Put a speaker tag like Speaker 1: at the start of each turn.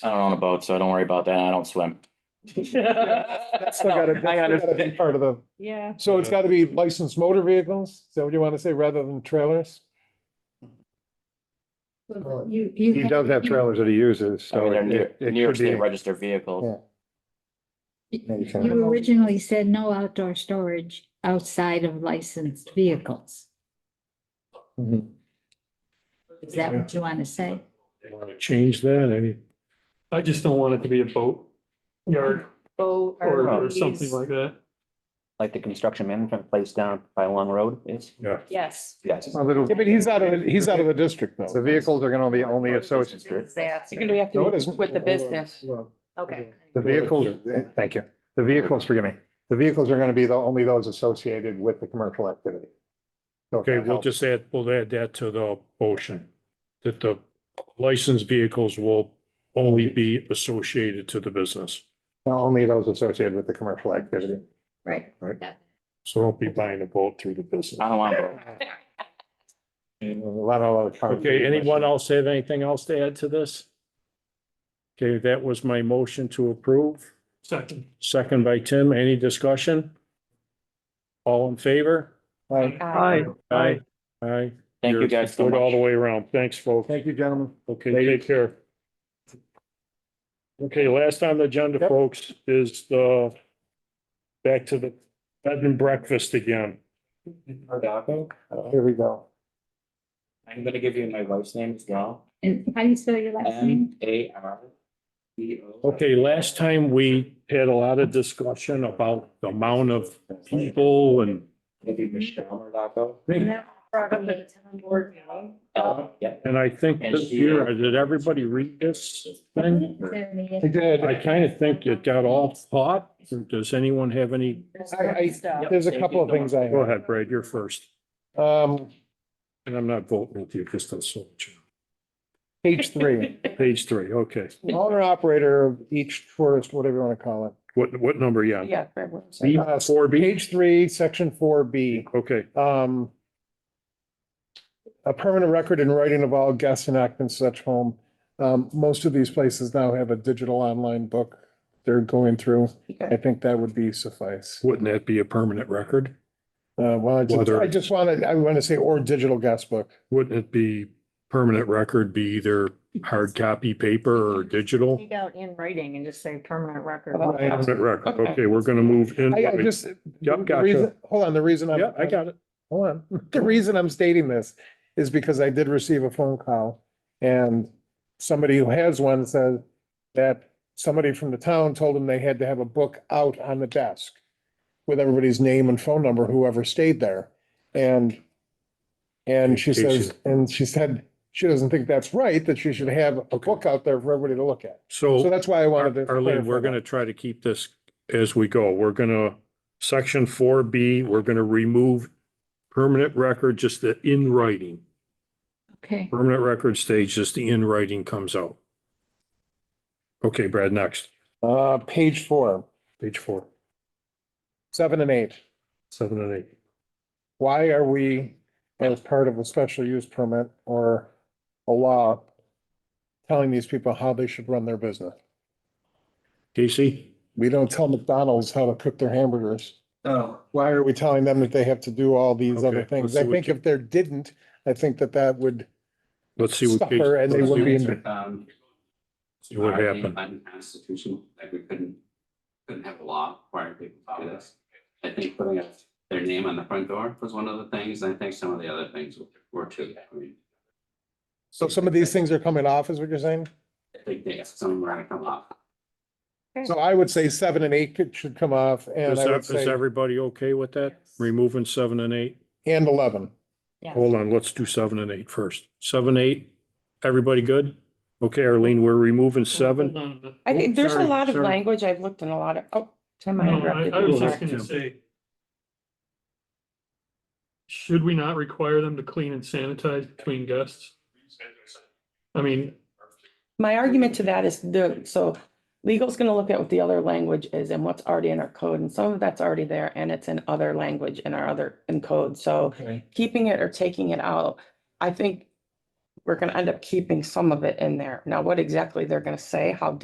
Speaker 1: I don't own a boat, so don't worry about that. I don't swim.
Speaker 2: That's still gotta, that's
Speaker 1: I
Speaker 2: still gotta be
Speaker 1: understand.
Speaker 2: part of the,
Speaker 3: Yeah.
Speaker 2: so it's gotta be licensed motor vehicles, is that what you wanna say, rather than trailers?
Speaker 3: You, you.
Speaker 4: He does have trailers that he uses,
Speaker 1: I mean,
Speaker 4: so
Speaker 1: they're New,
Speaker 4: it
Speaker 1: New
Speaker 4: it
Speaker 1: York State
Speaker 4: should be.
Speaker 1: registered vehicles.
Speaker 3: You originally said no outdoor storage outside of licensed vehicles.
Speaker 2: Mhm.
Speaker 3: Is that what you want to say?
Speaker 4: Want to Change that, any,
Speaker 5: I just don't want it to be a boat yard
Speaker 6: Boat
Speaker 5: or, or
Speaker 6: RVs.
Speaker 5: something like that.
Speaker 7: like the construction management place down by Long Road is?
Speaker 6: Yes.
Speaker 7: Yes.
Speaker 4: a little,
Speaker 2: Yeah, but he's out of, he's out of the district
Speaker 4: the
Speaker 2: though.
Speaker 4: vehicles are gonna be only associated,
Speaker 6: Disaster. You're gonna have
Speaker 2: No, it
Speaker 6: to
Speaker 2: isn't.
Speaker 6: with the business. Okay.
Speaker 4: the vehicles, thank you, the vehicles, forgive me, the vehicles are gonna be the, only those associated with the commercial activity. So if
Speaker 8: Okay,
Speaker 4: that
Speaker 8: we'll
Speaker 4: helps.
Speaker 8: just add, we'll add that to the motion, that the licensed vehicles will only be associated to the business.
Speaker 4: Only those associated with the commercial activity.
Speaker 3: Right.
Speaker 8: So don't be buying a boat through the
Speaker 1: I
Speaker 8: business.
Speaker 1: don't want a boat.
Speaker 4: And A lot of other. cars-
Speaker 8: Okay, anyone else have anything else to add to this? Okay, that was my motion to approve,
Speaker 5: Second.
Speaker 8: second by Tim, any discussion? All in favor?
Speaker 4: Right.
Speaker 6: Aye.
Speaker 8: Aye. Aye.
Speaker 1: Thank you
Speaker 8: You're
Speaker 1: guys so
Speaker 8: good All the
Speaker 1: much.
Speaker 8: way around, thanks folks.
Speaker 4: Thank you, gentlemen.
Speaker 8: Okay, take care. Okay, last on the agenda,
Speaker 4: Yep.
Speaker 8: folks, is the back to the bed and breakfast again.
Speaker 2: Uh,
Speaker 4: Here we go.
Speaker 1: I'm gonna give you my wife's name as well.
Speaker 3: And how do you spell your last name?
Speaker 1: M A R. E O.
Speaker 8: Okay, last time we had a lot of discussion about the amount of people and
Speaker 1: Maybe Michelle Mordaco. Uh, yeah.
Speaker 8: and I think
Speaker 1: And
Speaker 8: this
Speaker 1: she-
Speaker 8: year, did everybody read this thing?
Speaker 4: I did.
Speaker 8: I kind of think it got all caught. Does anyone have any?
Speaker 2: I, I, there's a couple of things I,
Speaker 8: Go ahead, Brad, you're first.
Speaker 2: um,
Speaker 8: And I'm not voting with you because that's so much.
Speaker 2: page three,
Speaker 8: Page three, okay.
Speaker 2: owner operator of each tourist, whatever you wanna call it.
Speaker 8: What, what number, yeah?
Speaker 6: Yeah.
Speaker 8: B,
Speaker 2: Uh,
Speaker 8: four B,
Speaker 2: Page three, section four B.
Speaker 8: okay,
Speaker 2: um, a permanent record in writing of all guests and occupants of such home. Um, most of these places now have a digital online book they're going through. I think that would be suffice.
Speaker 8: wouldn't that be a permanent record?
Speaker 2: Uh, well, I just,
Speaker 8: Whether-
Speaker 2: I just wanna, I wanna say, or digital guest book.
Speaker 8: Wouldn't it be permanent record be either hard copy paper or digital?
Speaker 6: Take out in writing and just say permanent record.
Speaker 2: Right.
Speaker 8: Permanent record, okay, we're gonna move in.
Speaker 2: I, I just. uh,
Speaker 8: Yep,
Speaker 2: the
Speaker 8: gotcha.
Speaker 2: reason- Hold on, the reason I'm.
Speaker 8: Yeah, I got it.
Speaker 2: Hold on. The reason I'm stating this is because I did receive a phone call and somebody who has one said that somebody from the town told them they had to have a book out on the desk with everybody's name and phone number, whoever stayed there. And and she says, and she said, she doesn't think that's right, that she should have a book out there for everybody to look at. So
Speaker 8: So
Speaker 2: that's why I wanted to.
Speaker 8: Arlene, we're
Speaker 2: clarify
Speaker 8: gonna try to keep this as we go. We're gonna, section four B, we're gonna remove permanent record, just the in writing.
Speaker 3: Okay.
Speaker 8: Permanent record stage, just the in writing comes out. Okay, Brad, next,
Speaker 2: that. Uh, page four,
Speaker 8: page four,
Speaker 2: seven and eight.
Speaker 8: seven and eight.
Speaker 2: why are we, as part of a special use permit or a law, telling these people how they should run their business?
Speaker 8: Casey?
Speaker 2: We don't tell McDonald's how to cook their hamburgers.
Speaker 1: Oh.
Speaker 2: Why are we telling them that they have to do all these other
Speaker 8: Okay,
Speaker 2: things?
Speaker 8: let's
Speaker 2: I
Speaker 8: see what
Speaker 2: think
Speaker 8: you-
Speaker 2: if there didn't, I think that that would,
Speaker 8: Let's see what,
Speaker 2: Suffer and they
Speaker 8: let's
Speaker 2: will
Speaker 8: see
Speaker 2: be-
Speaker 1: Um,
Speaker 8: See what
Speaker 1: are they
Speaker 8: happened.
Speaker 1: Unconstitutional, like we couldn't, couldn't have a law requiring people to do this. I think putting up their name on the front door was one of the things, and I think some of the other things were too. I mean,
Speaker 2: so some of these things are coming off, is what you're saying?
Speaker 1: I think they, some were gonna come up.
Speaker 2: So I would say seven and eight could- should come off and
Speaker 8: Is
Speaker 2: I would
Speaker 8: that- is
Speaker 2: say,
Speaker 8: everybody okay with that? Removing seven and eight?
Speaker 2: and eleven.
Speaker 8: Hold on, let's do seven and eight first. Seven, eight, everybody good? Okay, Arlene, we're removing seven.
Speaker 5: Hold on.
Speaker 6: I think there's a
Speaker 8: Sorry,
Speaker 6: lot of
Speaker 8: sorry.
Speaker 6: language. I've looked in a lot of, oh, Tim, I
Speaker 5: No, I,
Speaker 6: interrupted.
Speaker 5: I was just
Speaker 6: you.
Speaker 5: gonna say. Should we not require them to clean and sanitize between guests? I mean,
Speaker 6: My argument to that is the, so legal's gonna look at what the other language is and what's already in our code, and some of that's already there, and it's in other language in our other, in code, so keeping it or taking it out, I think we're gonna end up keeping some of it in there. Now, what exactly they're gonna say, how